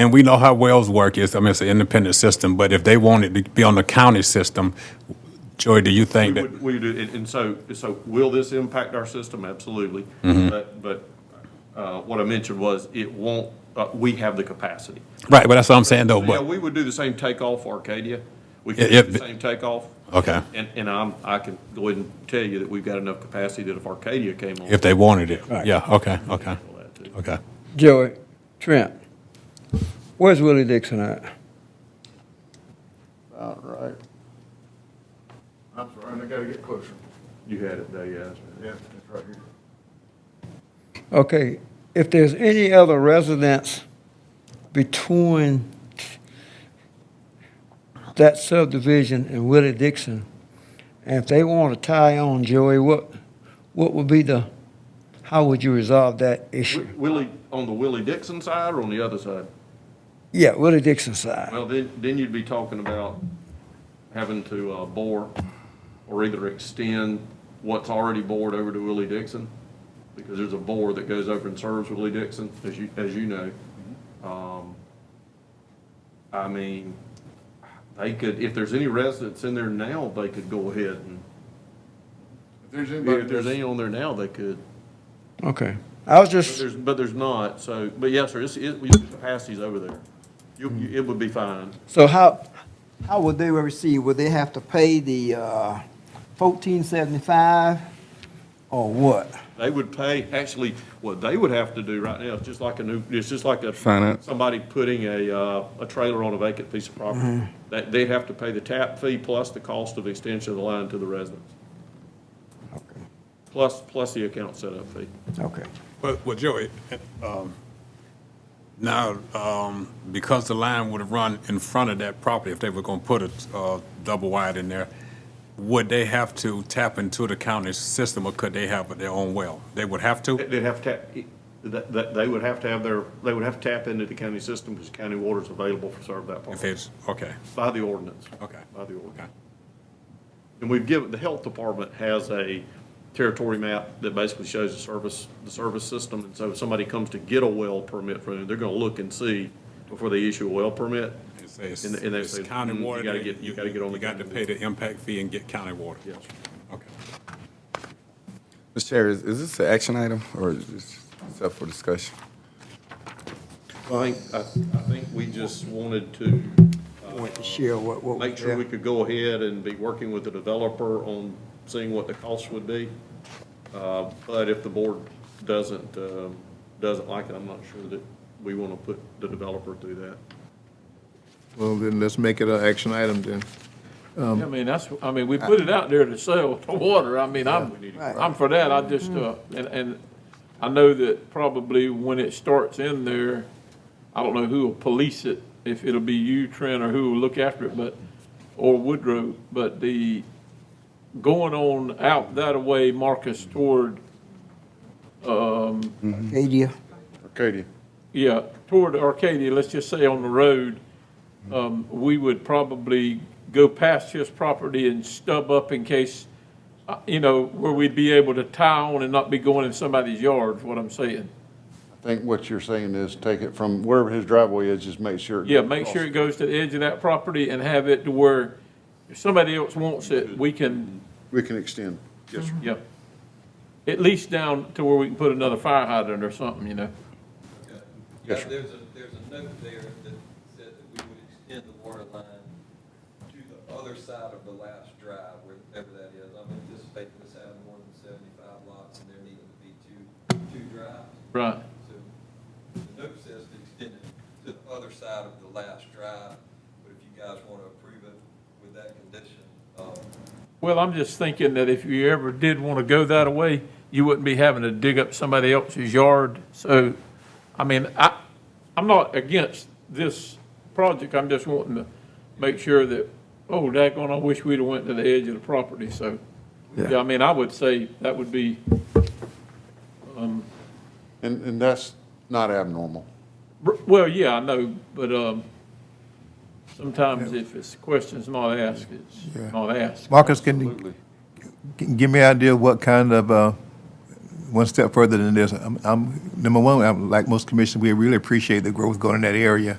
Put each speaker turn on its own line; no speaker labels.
And we know how wells work. It's, I mean, it's an independent system, but if they wanted to be on the county system, Joy, do you think
We
that,
would- we do, and, and so, so will this impact our system? Absolutely.
Mm-hmm.
But, but, uh, what I mentioned was it won't, uh, we have the capacity.
right, but that's Oh, what I'm saying though,
Yeah,
but,
we would do the same takeoff for Arcadia. We could
Yeah,
do the
yeah.
same takeoff.
Okay.
And, and I'm, I can go ahead and tell you that we've got enough capacity that if Arcadia came on.
if they wanted it. Yeah, okay, okay, okay.
Joey, Trent, where's Willie Dixon at?
About right. I'm sorry, I gotta get closer.
You had it, they asked.
Yeah, it's right here.
Okay, if there's any other residents between that subdivision and Willie Dixon, and if they want to tie on, Joey, what, what would be the, how would you resolve that issue?
Wi- Willie, on the Willie Dixon side or on the other side?
Yeah, Willie Dixon side.
Well, then, then you'd be talking about having to uh, bore or either extend what's already bored over to Willie Dixon, because there's a bore that goes over and serves Willie Dixon, as you, as you know.
Mm-hmm.
Um, I mean, they could, if there's any residents in there now, they could go ahead and,
If there's
if there's any
anybody,
on there now, they could.
Okay, I was
But
just,
there's, but there's not, so, but yes, sir, it's, it, your capacity's over there. You,
Mm-hmm.
you- it would be fine.
so how,
How would they receive? Would they have to pay the uh, fourteen seventy-five or what?
They would pay, actually, what they would have to do right now, it's just like a new, it's just like a.
Sign up.
Somebody putting a, uh, a trailer on a vacant piece of property. That, they'd have to pay the tap fee plus the cost of extension of the line to the residents. Plus, plus the account setup fee.
Okay.
But, well, Joey, um, now, um, because the line would have run in front of that property, if they were gonna put a, uh, double wide in there, would they have to tap into the county system or could they have their own well? They would have to?
They'd have to, tap- that, that, they would have to have their, they would have to tap into the county system because county water is available for serve that
If
part.
it's, okay,
By the ordinance.
Okay.
By the ordinance.
okay.
And we've given, the health department has a territory map that basically shows the service, the service system. And so if somebody comes to get a well permit from them, they're gonna look and see before they issue a well permit.
It's- It's
And they- and they
it's
say,
county
"Mm, you
water.
gotta
that
get- you gotta get on the
You got to
county
pay the impact fee and get county water.
Yes.
Okay.
Mr. Chair, is, is this an action item or is this it's up for discussion?
I think, I, I think we just wanted to
Want to share what, what?
make sure we could go ahead and be working with the developer on seeing what the cost would be. Uh, but if the board doesn't, um, doesn't like it, I'm not sure that we wanna put the developer through that.
well, then let's make it an action item then.
I mean, that's, I mean, we put it out there to sell the water. I mean, I'm, I'm for that. I just, uh, and, and I know that probably when it starts in there, I don't know who will police it, if it'll be you, Trent, or who will look after it, but, or Woodrow, but the going on out that way, Marcus, toward,
Adia,
Arcadia.
yeah, toward Arcadia, let's just say on the road, um, we would probably go past his property and stub up in case, uh, you know, where we'd be able to tie on and not be going in somebody's yard, is what I'm saying.
I think what you're saying is take it from wherever his driveway is, just make sure. it
Yeah,
goes
make sure
across.
it goes to the edge of that property and have it to where if somebody else wants it, we can,
We can extend. Yes, sir.
yeah. At least down to where we can put another fire hydrant or something, you know.
Yes,
Yeah,
sir.
There's a, there's a note there that said that we would extend the water line to the other side of the last drive, wherever that is. I'm anticipating this having more than seventy-five lots, and there needing to be two, two drives.
Right.
So the note says to extend it to the other side of the last drive, but if you guys want to approve it with that condition, um,
Well, I'm just thinking that if you ever did want to go that way, you wouldn't be having to dig up somebody else's yard. So, I mean, I, I'm not against this project. I'm just wanting to make sure that, oh, daggone, I wish we'd have went to the edge of the property. So, yeah, I mean, I would say that would be,
And, and that's not abnormal.
well, yeah, I know, but, um, sometimes if it's questions not asked, it's not asked.
Marcus, can you, can- give me an idea of what kind of, uh, one step further than this? I'm, I'm, number one, I'm, like most commissioners, we really appreciate the growth going in that area.